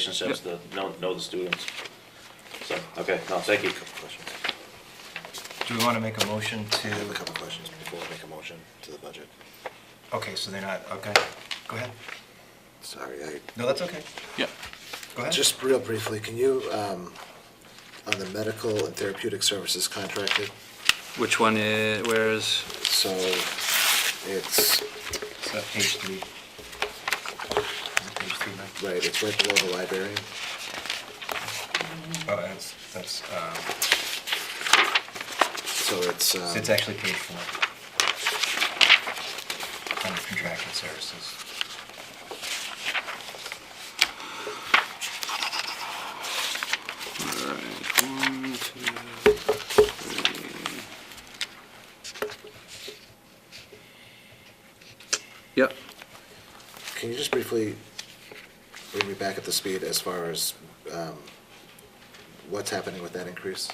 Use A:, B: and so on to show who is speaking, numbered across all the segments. A: relationships to know, know the students. So, okay, no, thank you.
B: Questions?
C: Do we want to make a motion to,
B: I have a couple questions before I make a motion to the budget.
C: okay, so they're not, okay, go ahead.
B: Sorry, I,
C: No, that's okay,
D: Yeah,
C: go ahead.
B: just real briefly, can you, um, on the medical and therapeutic services contracted,
D: which one is, where is,
B: so it's,
C: So page three. Is it Page three, Mike?
B: right, it's right below the librarian.
C: Oh, that's, that's, um,
B: So it's, um,
C: so it's actually page four. Under contracted services.
D: all right, one, two, three. Yep,
B: can you just briefly bring me back at the speed as far as, um, what's happening with that increase?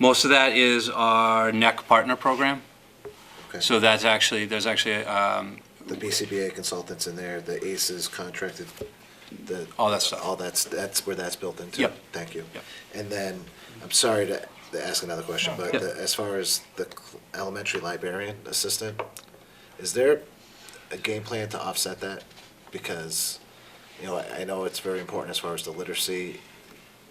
D: most of that is our NEC partner program.
B: Okay.
D: So that's actually, there's actually, um,
B: The BCBA consultants in there, the ACEs contracted, the.
D: All that stuff.
B: All that's, that's where that's built into?
D: Yep.
B: Thank you.
D: Yep.
B: And then, I'm sorry to to ask another question, but
D: Yeah.
B: the- as far as the cl- elementary librarian assistant, is there a game plan to offset that? Because, you know, I I know it's very important as far as the literacy,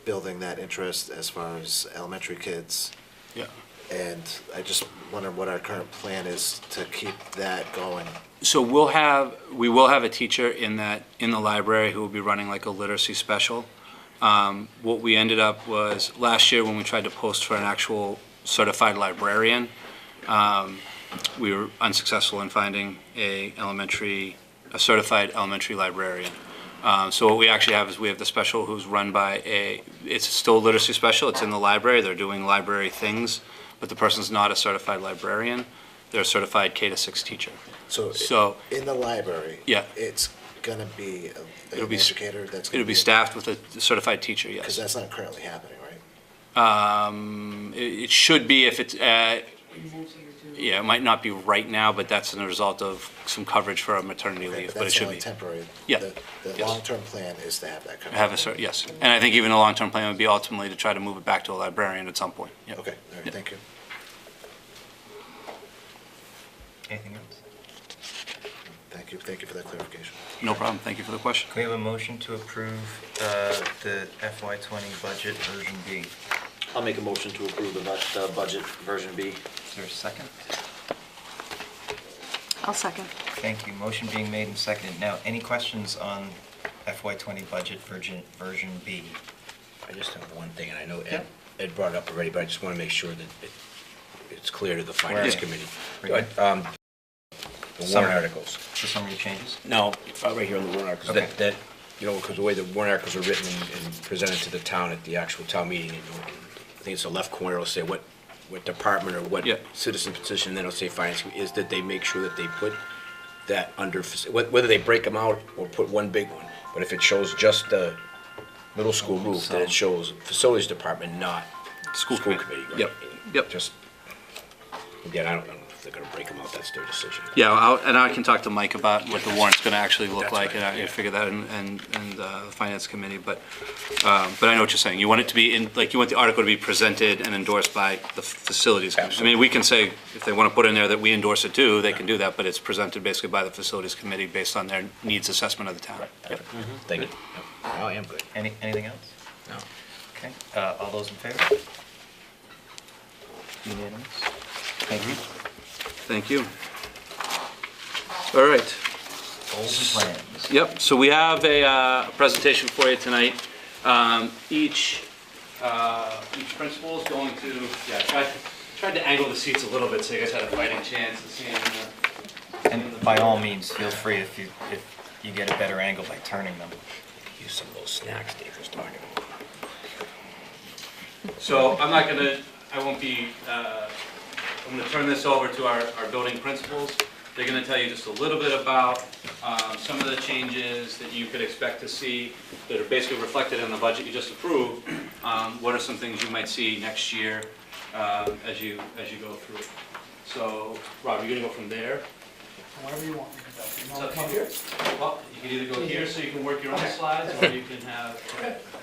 B: building that interest as far as elementary kids.
D: yeah.
B: And I just wonder what our current plan is to keep that going.
D: So we'll have, we will have a teacher in that, in the library who will be running like a literacy special. Um, What we ended up was, last year when we tried to post for an actual certified librarian, um, we were unsuccessful in finding a elementary, a certified elementary librarian. Um, So what we actually have is we have the special who's run by a, it's still a literacy special, it's in the library, they're doing library things, but the person's not a certified librarian, they're a certified K to six teacher.
B: So
D: So
B: in the library.
D: Yeah.
B: It's gonna be a-
D: It'll
B: an
D: be s-
B: educator that's. gonna
D: it'll be staffed with a certified teacher, yes.
B: Because that's not currently happening, right?
D: Um, It it should be if it's, uh, yeah, it might not be right now, but that's a result of some coverage for a maternity
B: Okay,
D: leave, but it should be.
B: That's only temporary.
D: Yeah,
B: The- The
D: yes.
B: long-term plan is to have that covered.
D: Have a cert, yes. And I think even a long-term plan would be ultimately to try to move it back to a librarian at some point. Yep.
B: Okay, all right,
D: Yep.
B: thank you.
C: Anything else?
B: Thank you, thank you for that clarification.
D: No problem, thank you for the question.
C: Can we have a motion to approve, uh, the FY twenty budget version B? Is
A: I'll make a motion to approve the bu- the budget version B.
C: there a second?
E: I'll second.
C: Thank you, motion being made and seconded. Now, any questions on FY twenty budget version, version B?
F: I just have one thing, and I know
C: Yeah.
F: Ed, Ed brought it up already, but I just want to make sure that it, it's clear to the finance
C: Yeah.
F: committee.
C: Right.
F: But, um, The
C: Summary.
F: warrant articles.
C: The summary changes?
F: No, uh, right here on the warrant articles,
C: Okay.
F: that, that, you know, because the way the warrant articles are written and- and presented to the town at the actual town meeting, you know, I think it's the left corner will say what, what department or what
D: Yeah.
F: citizen petition, then it'll say finance, committee, is that they make sure that they put that under, faci- wh- whether they break them out or put one big one, but if it shows just the middle school roof, then it shows facilities department, not
D: School committee.
F: right?
D: Yep, yep.
F: Just, again, I don't know if they're gonna break them out, that's their decision.
D: Yeah, I'll- and I can talk to Mike about what the warrant's going to actually look
F: That's
D: like,
F: right,
D: and I
F: yeah.
D: can figure that in- and, and uh, the Finance Committee, but, um, but I know what you're saying. You want it to be in, like, you want the article to be presented and endorsed by the Facilities Committee. I mean, we can say, if they want to put in there that we endorse it too, they can do that, but it's presented basically by the Facilities Committee based on their needs assessment of the town. Yep.
F: Thank you. No, I am good.
C: Any, anything else?
F: No.
C: Okay, uh, all those in favor? Unanimous? Thank you.
D: Thank you. All right.
C: Goals and plans.
D: Yep, so we have a uh, presentation for you tonight. Um, Each, uh, each principal is going to, yeah, I tried- tried to angle the seats a little bit so you guys had a fighting chance of seeing. the-
C: And by all means, feel free if you, if you get a better angle by turning them.
F: Use some of those snacks Dave was talking about.
D: So I'm not gonna, I won't be, uh, I'm gonna turn this over to our, our building principals. They're gonna tell you just a little bit about um, some of the changes that you could expect to see that are basically reflected in the budget you just approved. Um, What are some things you might see next year uh, um, as you, as you go through? So, Rob, you're gonna go from there?
E: wherever you want me to go. You
D: It's
E: want
D: up
E: to come
D: to you. Well, you can either go here so you can work your own slides, or you can have,